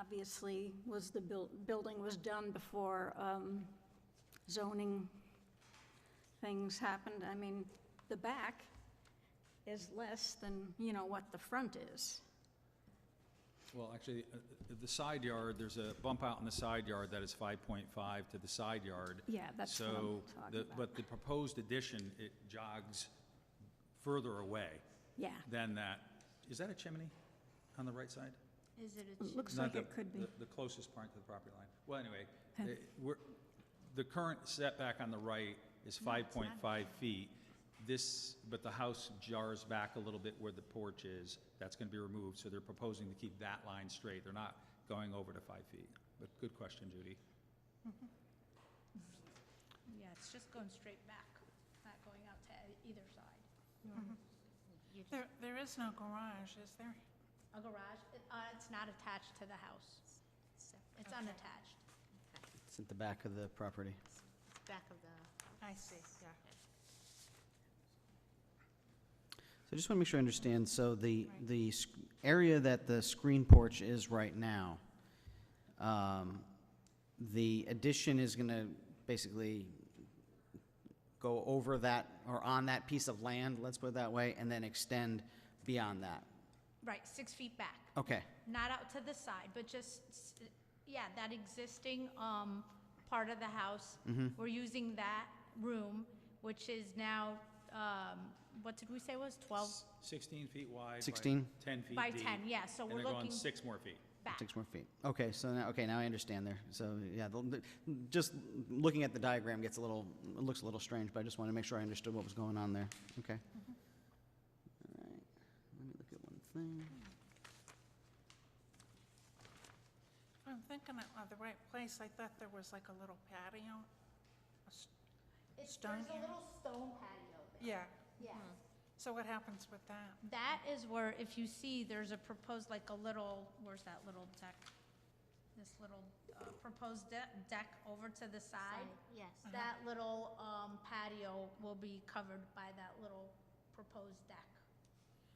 obviously was the buil- building was done before um, zoning things happened. I mean, the back is less than, you know, what the front is. Well, actually, uh, uh, the side yard, there's a bump out in the side yard that is 5.5 to the side yard. Yeah, that's what I'm So talking the- about. But the proposed addition, it jogs further away Yeah, than that. Is that a chimney on the right side? Is it a it looks Not like the- it could be. the- The closest part to the property line. Well, anyway, eh, we're, the current setback on the right is 5.5 feet. This, but the house jars back a little bit where the porch is. That's going to be removed, so they're proposing to keep that line straight. They're not going over to five feet. But good question, Judy. Yeah, it's just going straight back, not going out to e- either side. Mm-hmm. There, there is no garage, is there? A garage, uh, it's not attached to the house. It's unattached. It's at the back of the property. back of the, I see, yeah. So I just want to make sure I understand, so the, the sc- area that the screen porch is right now, um, the addition is going to basically go over that, or on that piece of land, let's put it that way, and then extend beyond that. Right, six feet back. Okay, Not out to the side, but just, s- yeah, that existing um, part of the house. We're using that room, which is now, um, what did we say was 12 16 feet wide. by 16? 10 feet By deep, 10, yeah, so we're And they're going looking- six more feet. back? six more feet. Okay, so now, okay, now I understand there. So, yeah, the- the- just looking at the diagram gets a little, it looks a little strange, but I just want to make sure I understood what was going on there. Okay. All right, let me look at one thing. If I'm thinking it of the right place, I thought there was like a little patio. a s- It's- Stone There's a area. little stone patio there. Yeah, Mm-hmm. Yeah. so what happens with that? That is where, if you see, there's a proposed, like a little, where's that little deck? This little uh, proposed de- deck over to the side. Uh-huh. yes. That little um, patio will be covered by that little proposed deck.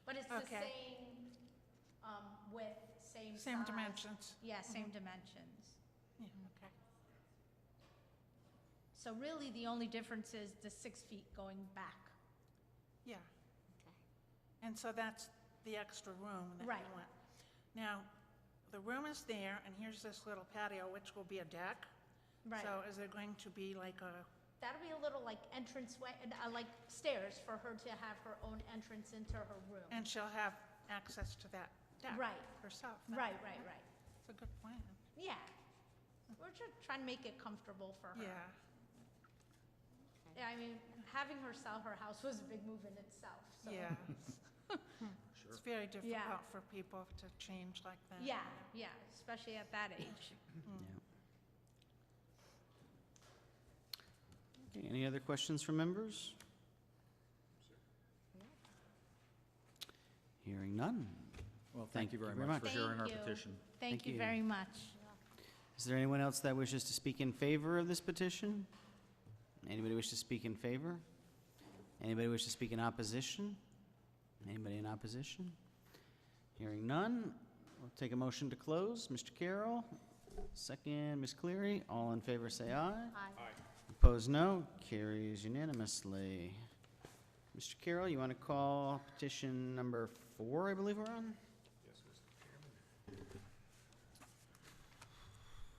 But it's the Okay. same um, width, same Uh-huh. Same size. dimensions. Yeah, same dimensions. Yeah, okay. So really, the only difference is the six feet going back. Yeah, Okay. and so that's the extra room that you Right. want. Now, the room is there, and here's this little patio, which will be a deck. Right. So is there going to be like a, That'll be a little like entranceway, uh, like stairs for her to have her own entrance into her room. and she'll have access to that deck? Right. Herself? then? Right, right, right. It's a good plan, Yeah. We're just trying to make it comfortable for her. yeah. Yeah, I mean, having her sell her house was a big move in itself, so. Yeah. It's very Yeah. difficult for people to change like that. Yeah, yeah, especially at that age. Okay, any other questions from members? Hearing none. Well, thank you very much for hearing our Thank you. petition. Thank Thank you you. very much. Is there anyone else that wishes to speak in favor of this petition? Anybody wish to speak in favor? Anybody wish to speak in opposition? Anybody in opposition? Hearing none, we'll take a motion to close. Mr. Carroll, second, Ms. Cleary, all in favor say aye. Aye. Opposed, no. Carries unanimously. Mr. Carroll, you want to call petition number four, I believe we're on?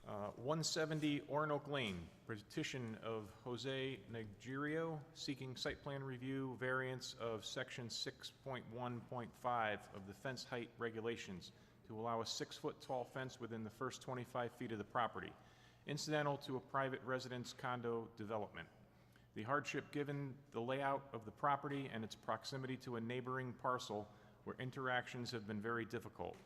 Uh, 170 Orinoco Lane, petition of Jose Negerio seeking site plan review variance of section 6.1.5 of the fence height regulations to allow a six-foot tall fence within the first 25 feet of the property, incidental to a private residence condo development. The hardship given the layout of the property and its proximity to a neighboring parcel where interactions have been very difficult.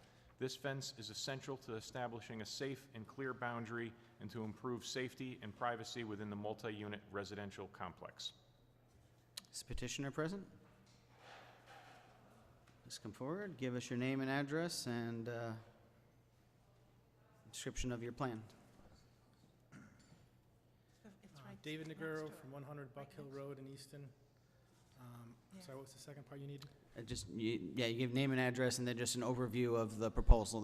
This fence is essential to establishing a safe and clear boundary and to improve safety and privacy within the multi-unit residential complex. Is petitioner present? Please come forward, give us your name and address and uh, description of your plan. It's Uh, right David next Negro to it. from 100 Buck Hill Road in Easton. Um, Yeah. Sorry, what's the second part you need? Uh, Just, you- yeah, you give name and address and then just an overview of the proposal